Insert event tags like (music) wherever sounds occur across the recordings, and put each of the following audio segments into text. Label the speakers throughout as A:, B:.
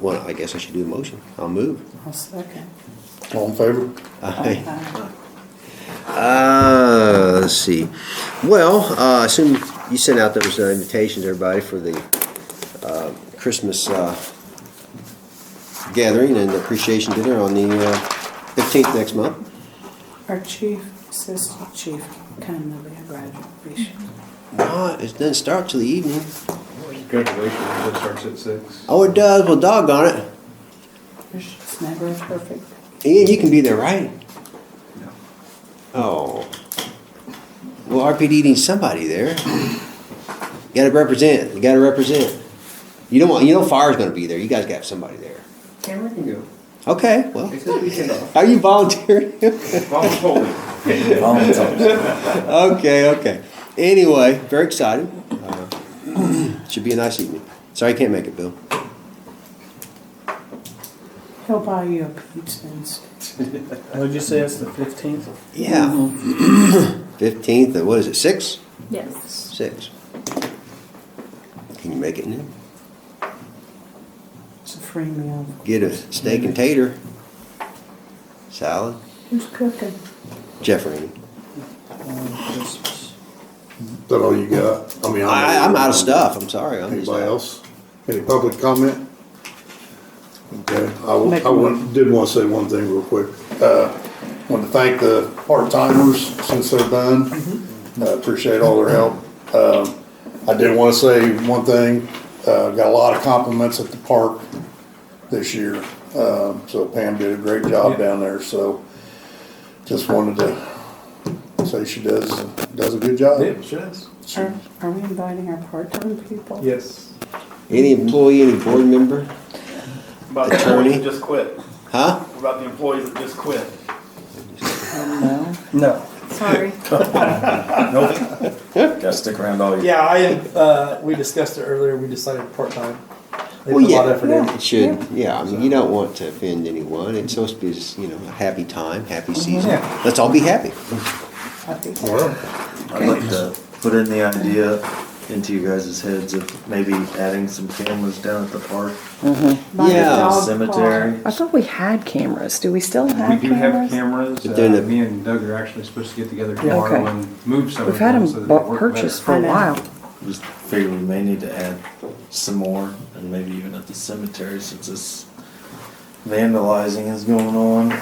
A: well, I guess I should do a motion. I'll move.
B: I'll second.
C: All in favor?
B: Aye.
A: Uh, let's see. Well, uh, I assume you sent out those uh, invitations, everybody, for the uh, Christmas uh, gathering and appreciation dinner on the uh, 15th next month.
B: Our chief, assistant chief, kind of a graduate, we should-
A: No, it doesn't start till the evening.
D: Graduation, that starts at six.
A: Oh, it does. Well, doggone it.
B: there's just never a perfect.
A: Ian, you can be there, right?
D: No.
A: Oh. Well, RPD needs somebody there. You gotta represent. You gotta represent. You don't want, you know fire's gonna be there. You guys got somebody there.
D: Cameron can go.
A: Okay, well,
D: It's his weekend off.
A: are you volunteering? (laughs)
D: Volunteering.
A: okay, okay. Anyway, very excited. Uh, (clears throat) Should be a nice evening. Sorry I can't make it, Bill.
B: He'll buy you a pizza instead.
E: What'd you say, it's the fifteenth?
A: Yeah. (clears throat) Fifteenth, what is it, six?
F: Yes.
A: Six. Can you make it now?
B: It's a free meal.
A: Get a steak and tater. Salad.
F: Who's cooking?
A: Jeffrey.
C: Is that all you got? I mean,
A: I, I'm out of stuff. I'm sorry. I'm just-
C: Anybody else? Any public comment? Okay, I, w-
B: Make
C: I
B: a-
C: want- did want to say one thing real quick. Uh, want to thank the part-timers since they're done.
B: Mm-hmm.
C: Uh, Appreciate all their help. Um, I did want to say one thing, uh, got a lot of compliments at the park this year. Um, so Pam did a great job down there, so just wanted to say she does, does a good job.
D: Yeah, sure is.
B: Are, are we inviting our part-time people?
D: Yes.
A: Any employee, any board member?
G: About the employees
A: Attorney?
G: that just quit.
A: Huh?
G: About the employees that just quit.
B: No.
E: No.
F: Sorry.
H: Gotta stick around all year.
E: Yeah, I, uh, we discussed it earlier, we decided part-time. They
A: Well,
E: put a lot of
A: yeah,
E: effort
B: yeah.
E: in.
A: It should, yeah. I mean, you don't want to offend anyone. It's supposed to be, just, you know, a happy time, happy season.
E: Oh, Yeah.
A: Let's all be happy.
B: I think
C: Well,
H: I'd like to put in the idea into you guys' heads of maybe adding some cameras down at the park.
B: by the
A: Yeah.
B: dog
H: Cemetery.
B: park.
F: I thought we had cameras. Do we still
D: We
F: have
D: do have
F: cameras?
D: cameras.
A: But then
D: Uh,
A: it-
D: Me and Doug are actually supposed to get together
E: Yeah.
D: tomorrow
F: Okay.
D: and move some of
F: We've had
D: them um, so
F: them
D: that they
F: bought-
D: work
F: purchased
D: better.
F: for
B: I
F: a
B: know.
F: while.
H: Just figure we may need to add some more and maybe even at the cemetery since this vandalizing is going on. Maybe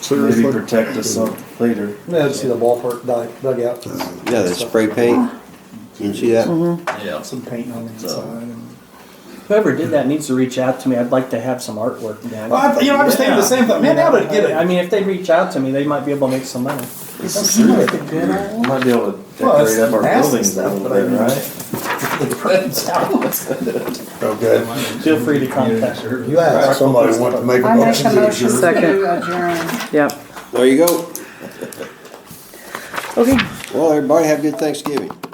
C: seriously?
H: protect us up later.
E: Yeah, just see the ballpark dug- dugout.
A: Yeah, the spray paint. You see that?
E: Mm-hmm.
H: Yeah.
E: Some paint on the
H: So-
E: inside. and- Whoever did that needs to reach out to me, I'd like to have some artwork done. you know, I was thinking the same thing, man, that would get it. I mean, if they reach out to me, they might be able to make some money.
B: Is it like a good old?
H: Might be able to
E: Well, it's
H: decorate up our
E: nasty
H: buildings a
E: stuff,
H: little
E: but I
H: bit,
E: mean-
H: right?
C: Okay.
E: Feel free to contact.
C: You asked. Somebody want to make a
B: I make
C: motion
B: a
C: to
B: motion
C: adjourn.
B: to adjourn.
F: Yep.
A: There you go.
F: Okay.
A: Well, everybody have a good Thanksgiving.